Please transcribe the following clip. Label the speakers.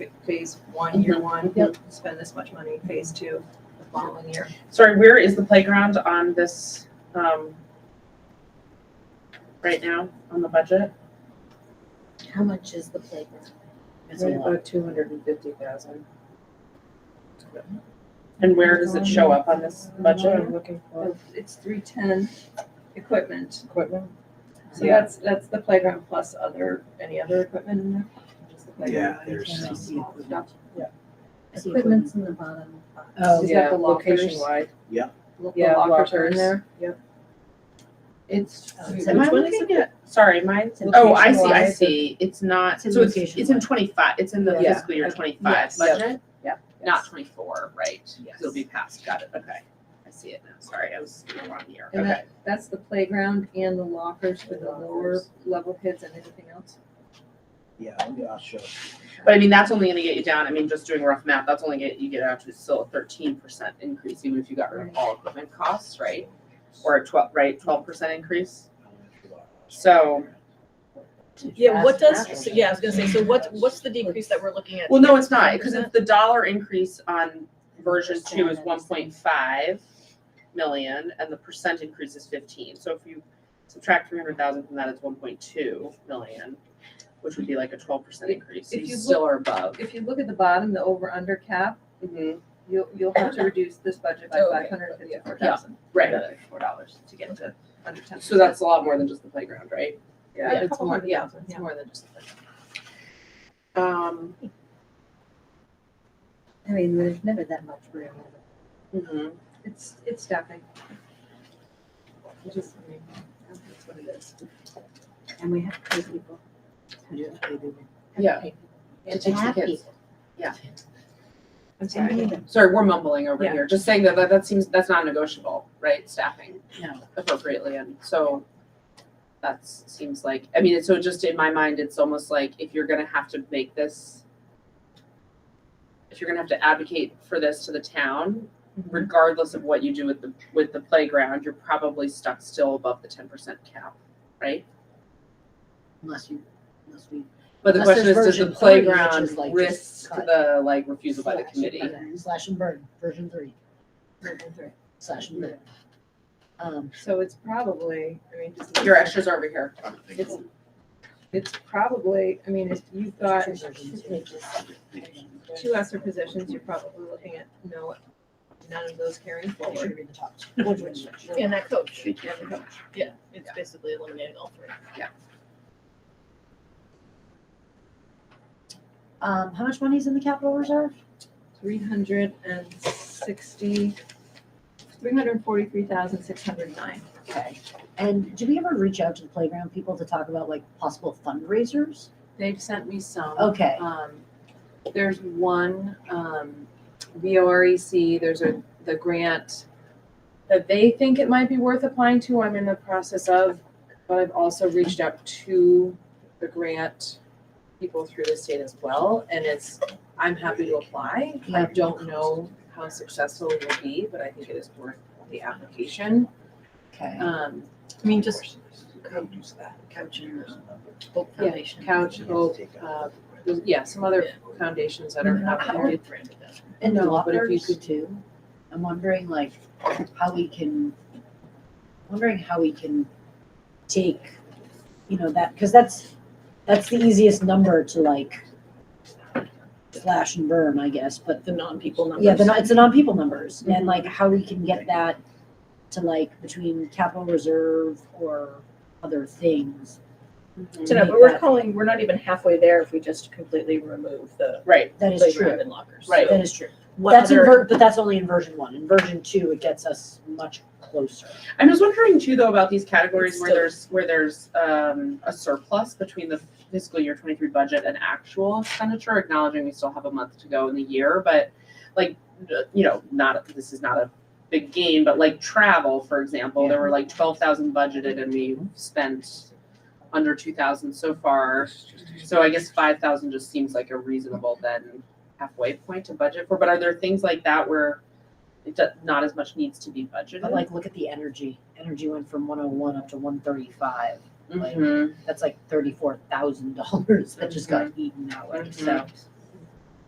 Speaker 1: f- phase one, year one.
Speaker 2: Yep.
Speaker 1: Spend this much money, phase two, the following year.
Speaker 3: Sorry, where is the playground on this, um, right now, on the budget?
Speaker 2: How much is the playground?
Speaker 4: It's a lot.
Speaker 5: About two hundred and fifty thousand.
Speaker 3: And where does it show up on this budget?
Speaker 5: I'm looking
Speaker 1: Oh.
Speaker 5: for
Speaker 1: It's three ten equipment.
Speaker 5: equipment.
Speaker 1: So that's, that's the playground plus other, any other equipment in there? Just the playground.
Speaker 4: Yeah, there's some.
Speaker 1: Stuff.
Speaker 2: Equipment's in the bottom. box.
Speaker 1: Oh, Is that yeah, the lockers?
Speaker 5: Location wide.
Speaker 1: Lo- The
Speaker 5: Yeah,
Speaker 1: lockers are in
Speaker 5: lockers.
Speaker 1: there. Yep.
Speaker 3: It's.
Speaker 2: Oh, it's
Speaker 3: Am I
Speaker 2: in-
Speaker 3: looking at, sorry, mine,
Speaker 2: it's in
Speaker 3: oh, I see, I
Speaker 2: location-wise.
Speaker 3: see, it's not,
Speaker 2: It's in
Speaker 3: so it's,
Speaker 2: location
Speaker 3: it's in
Speaker 2: wise.
Speaker 3: twenty-five, it's in the
Speaker 5: Yeah.
Speaker 3: fiscal year
Speaker 5: Okay.
Speaker 3: twenty-five
Speaker 5: Yes.
Speaker 3: budget?
Speaker 6: Not twenty-four, right?
Speaker 3: Yes.
Speaker 6: It'll be passed, got it.
Speaker 3: Okay, I see it now, sorry, I was in the wrong year,
Speaker 1: And
Speaker 3: okay.
Speaker 1: that, that's the playground and the lockers for the lower level kids and anything else.
Speaker 4: Yeah, let me- I'll show. you.
Speaker 3: But I mean, that's only gonna get you down, I mean, just doing rough math, that's only get, you get out to still a thirteen percent increase, even if you got rid of all equipment costs, right? Or a twelve, right, twelve percent increase? So-
Speaker 7: Yeah, what does, so yeah, I was gonna say, so what, what's the decrease that we're looking at?
Speaker 3: Well, no, it's not, because if the dollar increase on version two is one point five million, and the percent increase is fifteen, so if you subtract three hundred thousand from that, it's one point two million, which would be like a twelve percent increase, so
Speaker 1: If
Speaker 3: you
Speaker 1: you
Speaker 3: still are above.
Speaker 1: If you look at the bottom, the over under cap,
Speaker 3: Mhm.
Speaker 1: you'll, you'll have to reduce this budget by
Speaker 7: Oh, okay.
Speaker 1: five hundred and fifty-four thousand.
Speaker 3: Right,
Speaker 1: Four dollars to get to under ten.
Speaker 3: so that's a lot more than just the playground, right?
Speaker 1: Yeah, a
Speaker 5: it's
Speaker 1: couple
Speaker 5: more-
Speaker 1: hundred
Speaker 3: yeah,
Speaker 1: thousand, yeah. more than just.
Speaker 3: Um.
Speaker 2: I mean, there's never that much room.
Speaker 3: mhm.
Speaker 1: It's, it's staffing. It just, I mean, that's what it is.
Speaker 2: And we have to pay people. Have to
Speaker 3: Yeah.
Speaker 2: pay people.
Speaker 3: It takes the
Speaker 2: Have
Speaker 3: kids.
Speaker 2: people.
Speaker 1: I'm
Speaker 2: I need them.
Speaker 3: Sorry, we're mumbling over
Speaker 1: Yeah.
Speaker 3: here, just saying that, that, that seems, that's not negotiable, right, staffing?
Speaker 6: No.
Speaker 3: Appropriately, and so that's, seems like, I mean, so just in my mind, it's almost like if you're gonna have to make this, if you're gonna have to advocate for this to the town,
Speaker 6: Mm-hmm.
Speaker 3: regardless of what you do with the, with the playground, you're probably stuck still above the ten percent cap, right?
Speaker 6: Unless you, unless we.
Speaker 3: But the
Speaker 6: Unless
Speaker 3: question is,
Speaker 6: there's
Speaker 3: does the
Speaker 6: version three, which
Speaker 3: playground
Speaker 6: is like just
Speaker 3: risk
Speaker 6: cut.
Speaker 3: the, like, refusal by the committee?
Speaker 6: Slash and burn, version three, slash and burn. Um,
Speaker 1: So it's probably, I mean, just.
Speaker 3: Your extras are over here.
Speaker 1: It's, it's probably, I mean, if you've got
Speaker 6: two versions, yeah.
Speaker 1: two ESER positions, you're probably looking at no, none of those carrying
Speaker 6: It
Speaker 1: forward.
Speaker 6: should be the top two.
Speaker 7: And that coach,
Speaker 1: And the coach.
Speaker 7: yeah, it's basically eliminating all three.
Speaker 6: Um, how much money is in the capital reserve?
Speaker 1: Three hundred and sixty, three hundred and forty-three thousand, six hundred and nine.
Speaker 6: Okay, and do we ever reach out to the playground people to talk about like possible fundraisers?
Speaker 8: They've sent me some.
Speaker 6: Okay,
Speaker 8: Um, there's one, um, VOREC, E there's a, the grant that they think it might be worth applying to, I'm in the process of, but I've also reached out to the grant people through the state as well, and it's, I'm happy to apply. I
Speaker 6: Yeah.
Speaker 8: don't know how successful it will be, but I think it is worth the application.
Speaker 6: okay.
Speaker 8: Um,
Speaker 7: I mean, just
Speaker 6: Couch
Speaker 4: Hope
Speaker 8: Yeah, Couch, Hope, uh, there's- yeah, some other foundations that are out there.
Speaker 6: And
Speaker 8: No, but if you
Speaker 6: lockers too. I'm wondering like how we can, wondering how we can take, you know, that, because that's, that's the easiest number to like slash and burn, I guess, but
Speaker 7: the non-people numbers.
Speaker 6: yeah, the, non- it's the non-people numbers
Speaker 8: Mm-hmm.
Speaker 6: and like how we can get that to like between capital reserve or other things.
Speaker 7: So no, but we're calling, we're not even halfway there if we just completely remove the
Speaker 3: Right.
Speaker 6: That is
Speaker 7: playground
Speaker 6: true.
Speaker 7: and lockers.
Speaker 3: Right.
Speaker 7: So
Speaker 6: That is true.
Speaker 7: What
Speaker 6: That's in,
Speaker 7: other-
Speaker 6: ver- but that's only in version one. In version two, it gets us much closer.
Speaker 3: I'm just wondering too, though, about these categories where
Speaker 7: Still-
Speaker 3: there's, where there's, um, a surplus between the fiscal year twenty-three budget and actual expenditure, acknowledging we still have a month to go in the year, but like, you know, not, this is not a big gain, but like travel, for example, there were like twelve thousand budgeted and we spent under two thousand so far. So I guess five thousand just seems like a reasonable then halfway point to budget for, but are there things like that where it does, not as much needs to be budgeted?
Speaker 6: But like, look at the energy. Energy went from one oh one up to one thirty-five. Like,
Speaker 3: Mhm.
Speaker 6: that's like thirty-four thousand dollars that just got eaten that way, so.